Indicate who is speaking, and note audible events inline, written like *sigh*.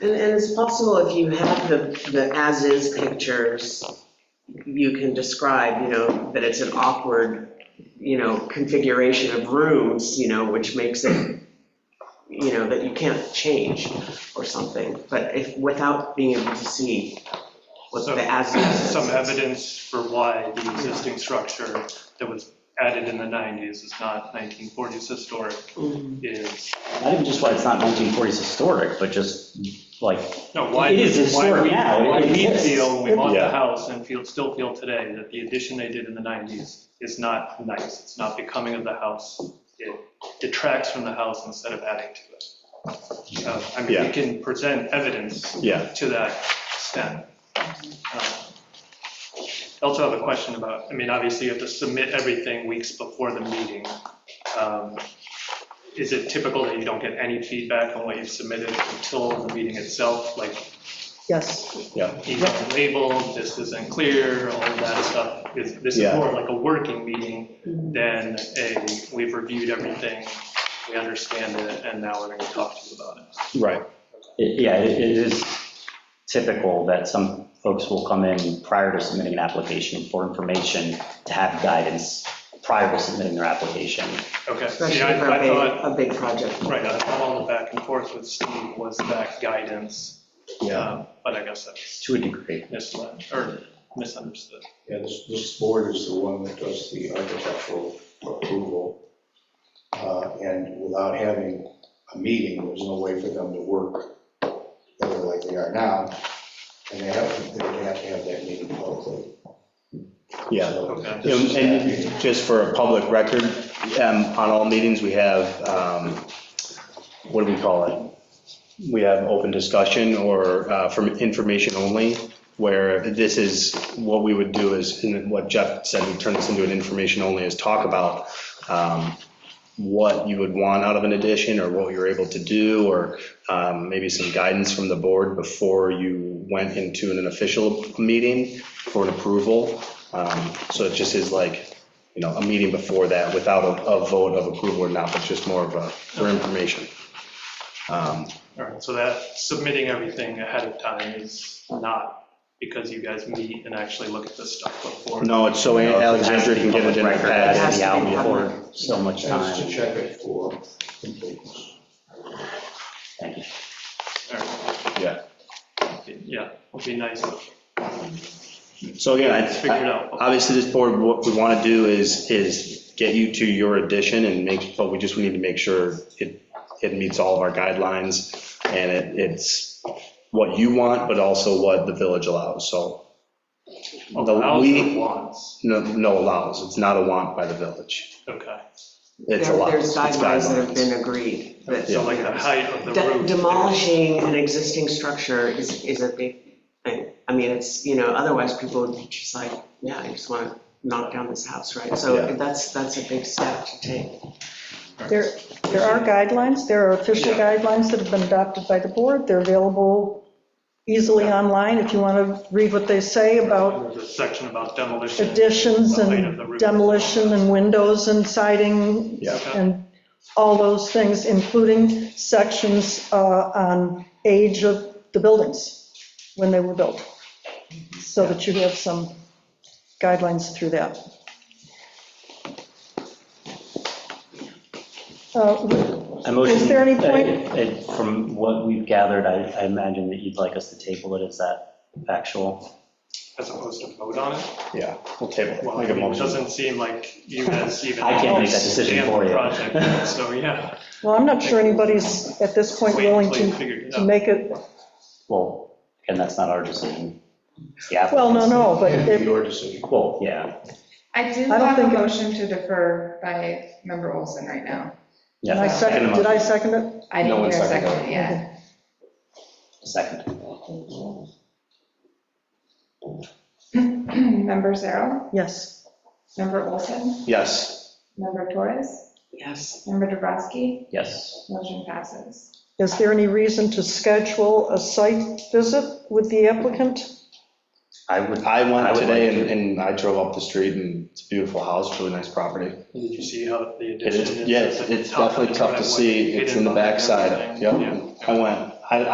Speaker 1: And, and it's possible if you have the, the as-is pictures, you can describe, you know, that it's an awkward, you know, configuration of rooms, you know, which makes it, you know, that you can't change or something, but if, without being able to see what
Speaker 2: So-
Speaker 1: the as-is is.
Speaker 2: Some evidence for why the existing structure that was added in the 90s is not 1940s historic
Speaker 1: Mm.
Speaker 2: is,
Speaker 3: Not even just why it's not 1940s historic, but just like,
Speaker 2: no, why.
Speaker 3: It is historic
Speaker 2: why we-
Speaker 3: now, it
Speaker 2: Why we
Speaker 3: exists.
Speaker 2: feel, we bought the
Speaker 4: Yeah.
Speaker 2: house and feel, still feel today that the addition they did in the 90s is not nice. It's not becoming of the house. It detracts from the house instead of adding to it. Uh, I mean, we
Speaker 4: Yeah.
Speaker 2: can present evidence
Speaker 4: Yeah,
Speaker 2: to that extent. Um, I also have a question about, I mean, obviously you have to submit everything weeks before the meeting. Um, Is it typical that you don't get any feedback on what you've submitted until the meeting itself? Like,
Speaker 5: Yes,
Speaker 4: yeah,
Speaker 2: you have to label, this isn't clear, all of that stuff. Is- This is
Speaker 4: Yeah.
Speaker 2: more like a working meeting than a, we've reviewed everything, we understand it, and now we're going to talk to you about it.
Speaker 4: right.
Speaker 3: it- yeah, it it is typical that some folks will come in prior to submitting an application for information to have guidance prior to submitting their application.
Speaker 2: Okay. See,
Speaker 1: Especially
Speaker 2: I
Speaker 1: for a
Speaker 2: I thought,
Speaker 1: big, a big project.
Speaker 2: Right, I thought all the back and forth with Steve was that guidance, um, but I guess that's
Speaker 3: To a degree.
Speaker 2: misled, or misunderstood.
Speaker 6: Yeah, this, this board is the one that does the architectural approval. Uh, And without having a meeting, there's no way for them to work together like they are now. And they have, they would have to have that meeting publicly.
Speaker 4: Yeah.
Speaker 6: So
Speaker 2: Okay.
Speaker 6: this is that meeting.
Speaker 4: And just for a public record, um, on all meetings, we have, um, what do we call it? We have open discussion or uh, for information only, where this is, what we would do is, and what Jeff said, we turn this into an information only, is talk about um, what you would want out of an addition, or what you're able to do, or um, maybe some guidance from the board before you went into an official meeting for an approval. Um, So it just is like, you know, a meeting before that without a a vote of approval or not, but just more of a, for information. Um,
Speaker 2: All right, so that submitting everything ahead of time is not because you guys meet and actually look at this stuff before.
Speaker 4: No, it's so Alexandra can get it in her
Speaker 3: It has
Speaker 4: pad.
Speaker 3: to be out
Speaker 1: Has to
Speaker 3: for so much
Speaker 6: Just to
Speaker 3: time.
Speaker 6: check it for completeness.
Speaker 3: Thank you.
Speaker 2: All right,
Speaker 4: Yeah.
Speaker 2: Yeah, would be nice to
Speaker 4: So again,
Speaker 2: figure it
Speaker 4: I- I-
Speaker 2: out.
Speaker 4: obviously this board, what we want to do is, is get you to your addition and make, but we just, we need to make sure it, it meets all of our guidelines and it, it's what you want, but also what the village allows, so. the-
Speaker 2: Allows
Speaker 4: we-
Speaker 2: or wants,
Speaker 4: No, no allows, it's not a want by the village.
Speaker 2: okay.
Speaker 4: It's
Speaker 1: There-
Speaker 4: allows.
Speaker 1: There's
Speaker 4: It's
Speaker 1: guidelines that have
Speaker 4: guidelines.
Speaker 1: been agreed that.
Speaker 2: So like the height of the
Speaker 1: De-
Speaker 2: roof.
Speaker 1: Demolishing an existing structure is, is a big thing. I mean, it's, you know, otherwise people would be just like, yeah, I just want to knock down this house, right?
Speaker 4: Yeah.
Speaker 1: So that's, that's a big step to take.
Speaker 5: there, there are guidelines, there are official
Speaker 2: Yeah.
Speaker 5: guidelines that have been adopted by the board. They're available easily online if you want to read what they say about
Speaker 2: There's a section about demolition.
Speaker 5: additions
Speaker 2: the height of the
Speaker 5: and
Speaker 2: roof.
Speaker 5: demolition and windows and siding
Speaker 4: Yeah.
Speaker 5: and all those things, including sections uh, on age of the buildings when they were built, so that you have some guidelines through that. Uh,
Speaker 3: I motion-
Speaker 5: Is there any point-
Speaker 3: Uh, it- From what we've gathered, I I imagine that you'd like us to table it. Is that factual?
Speaker 2: As opposed to vote on it.
Speaker 4: Yeah, we'll table it.
Speaker 2: Well,
Speaker 4: Make
Speaker 2: I
Speaker 4: a
Speaker 2: mean, it
Speaker 4: motion.
Speaker 2: doesn't seem like you
Speaker 4: *laughs*
Speaker 2: guys even.
Speaker 3: I can't make that decision
Speaker 2: understand the
Speaker 3: for you.
Speaker 2: project, So, yeah.
Speaker 5: Well, I'm not sure anybody's at this point
Speaker 2: Wait
Speaker 5: willing
Speaker 2: until you
Speaker 5: to,
Speaker 2: figure it
Speaker 5: to
Speaker 2: out.
Speaker 5: make it,
Speaker 3: Well, again, that's not our decision. It's the applicant's.
Speaker 5: well, no, no, but
Speaker 6: And
Speaker 5: if,
Speaker 6: your decision.
Speaker 3: Well, yeah,
Speaker 7: I do
Speaker 5: I don't
Speaker 7: have a
Speaker 5: think it-
Speaker 7: motion to defer by member Olson right now.
Speaker 5: and I
Speaker 3: yeah,
Speaker 5: second, did I second it?
Speaker 7: I
Speaker 4: No
Speaker 7: didn't
Speaker 4: one
Speaker 7: hear a
Speaker 4: seconded
Speaker 7: second, yeah.
Speaker 3: second.
Speaker 7: *clears throat* Member Zarrow,
Speaker 5: Yes.
Speaker 7: member Olson,
Speaker 4: Yes,
Speaker 7: member Torres,
Speaker 1: Yes.
Speaker 7: member Dubrasky,
Speaker 3: Yes,
Speaker 7: motion passes.
Speaker 5: Is there any reason to schedule a site visit with the applicant?
Speaker 3: I would,
Speaker 4: I
Speaker 3: I
Speaker 4: went
Speaker 3: would
Speaker 4: today
Speaker 3: like
Speaker 4: and, and I drove up the street and it's a beautiful house, really nice property.
Speaker 2: Did you see how the
Speaker 4: It
Speaker 2: addition is?
Speaker 4: is, yeah, it's
Speaker 2: at the
Speaker 4: it's
Speaker 2: top of
Speaker 4: definitely
Speaker 2: the
Speaker 4: tough to
Speaker 2: driveway,
Speaker 4: see, it's
Speaker 2: hidden
Speaker 4: in the
Speaker 2: behind
Speaker 4: backside,
Speaker 2: everything?
Speaker 4: yep.
Speaker 2: Yeah.
Speaker 4: I went, I,